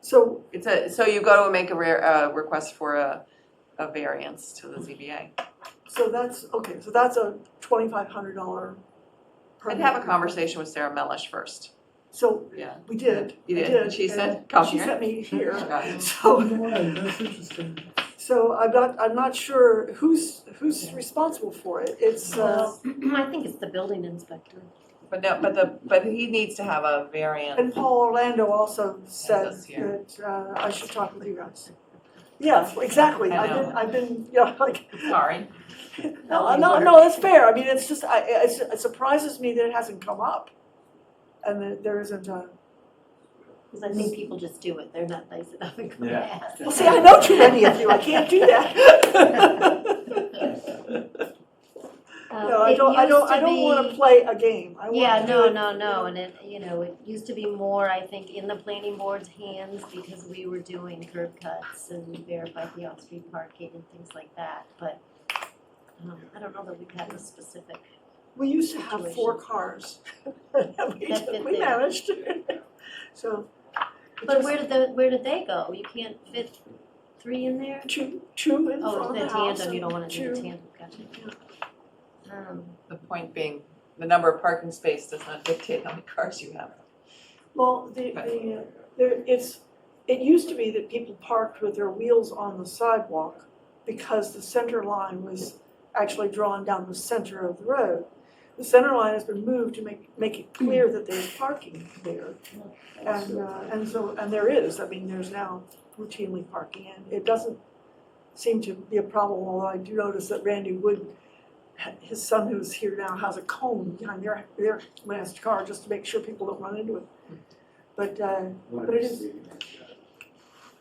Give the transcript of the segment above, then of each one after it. So It's a, so you go to make a rare, uh, request for a, a variance to the ZBA. So that's, okay, so that's a twenty-five hundred dollar I'd permit. have a conversation with Sarah Melish first, So yeah. we did, You I did, did. and she said, and "Come She here." sent me here. Okay. So, Right, that's interesting. so I'm not, I'm not sure who's, who's responsible for it. It's, uh, Well, I think it's the building inspector. But no, but the, but he needs to have a and variance. Paul Orlando also said us here. that uh, I should talk with you guys. Yeah, exactly. I I've been, I've been, you know, like, Sorry. no, no, no, that's fair. I mean, it's just, I, it's- it surprises me that it hasn't come up. And that there isn't a, Because I think people just do it, they're not nice enough and come Yeah. ask. well, see, I know too many of you. I can't do that. Um, No, I it don't, I used don't, I to don't wanna be- play a game, I wanna do Yeah, no, it, no, you no, know. and it, you know, it used to be more, I think, in the planning board's hands because we were doing curb cuts and verified the off-street parking and things like that, but um, I don't know that we've had a specific, We used to have four cars, And we, That fit we there. managed, so. it but just- where did the, where did they go? You can't fit three in there? Two, two in Oh, front the of the house tandem, you don't wanna and do the two, tandem, gotcha. Um, The point being, the number of parking spaces does not dictate how many cars you have. well, the, the, uh, there, it's, it used to be that people parked with their wheels on the sidewalk because the center line was actually drawn down the center of the road. The center line has been moved to make, make it clear that there's parking there. And, uh, and so, and there is, I mean, there's now routinely parking, and it doesn't seem to be a problem, although I do notice that Randy Wood, his son who's here now, has a cone behind their, their last car, just to make sure people don't run into it. But, uh, but it is,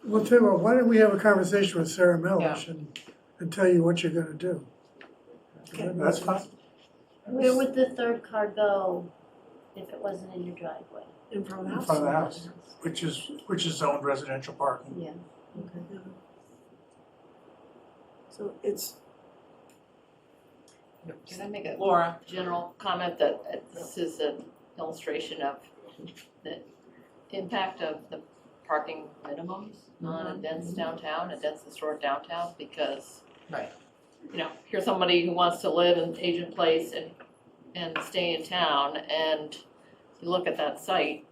Well, tell you what, why don't we have a conversation with Sarah Melish and, and tell you what you're gonna do? Okay. That's fine. Where would the third car go if it wasn't in your driveway? in front In of front the of the house. house, which is, which is zoned residential parking. Yeah, okay. So it's, Can I make a Laura, general comment that uh, this is an illustration of the impact of the parking minimums on a dense downtown, a dense historic downtown, because Right. you know, here's somebody who wants to live in Agent Place and and stay in town, and you look at that site,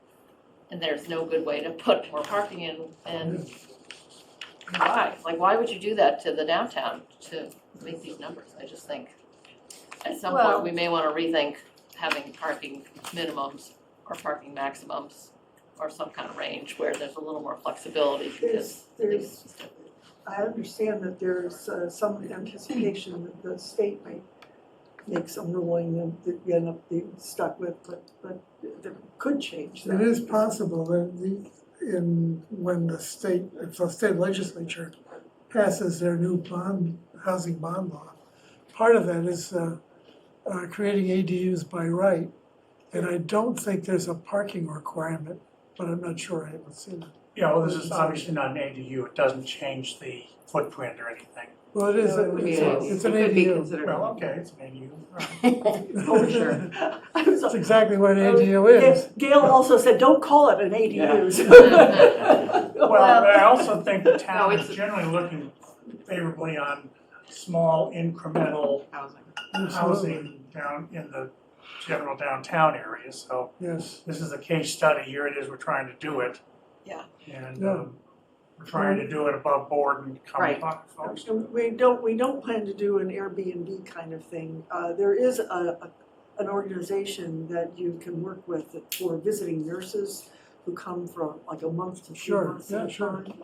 and there's no good way to put more parking in, and why? Like, why would you do that to the downtown to make these numbers? I just think at some Well- point, we may wanna rethink having parking minimums or parking maximums or some kind of range where there's a little more flexibility because there's, there's I understand that there's uh, some anticipation that the state might make some ruling that- that we end up being stuck with, but, but that could change that. It is possible that the, in, when the state, if the state legislature passes their new bond, housing bond law, part of that is, uh, uh, creating ADUs by right. And I don't think there's a parking requirement, but I'm not sure, I haven't seen it. Yeah, well, this is obviously not an ADU, it doesn't change the footprint or anything. Well, it is, No, it would be it's, an a- it's an it could be ADU. considered. Well, okay, it's an ADU. Oh, sure. I was That's like, exactly what an Oh, ADU is. Ga- Gail also said, don't call it an ADU. Well, but I also think the town is it's- generally looking favorably on small incremental Housing. Absolutely. housing down in the general downtown area, so Yes, this is a case study, here it is, we're trying to do it. Yeah. And, Yeah. um, we're trying to do it above board and come Right. talk to folks. And We don't, we don't plan to do an Airbnb kind of thing. Uh, There is a, a- an organization that you can work with for visiting nurses who come for like a month to two Sure, months yeah, at a sure. time.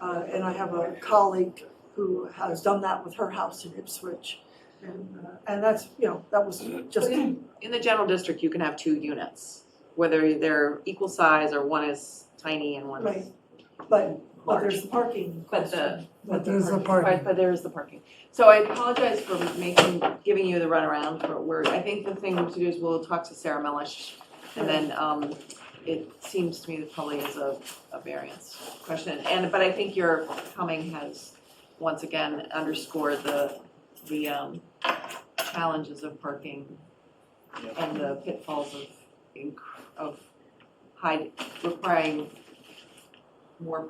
Uh, And I have a colleague who has done that with her house in Ipswich. And, uh, and that's, you know, that was just, In the general district, you can have two units, whether they're equal size or one is tiny and one is Right. but, but large. there's the parking But the- question. but there's a Right, parking. but there is the parking. So I apologize for making, giving you the runaround for where, I think the thing to do is we'll talk to Sarah Melish. And then, um, it seems to me that probably is a, a variance question. And, but I think your coming has, once again, underscored the, the, um, challenges of parking and the pitfalls of, inc- of high, requiring more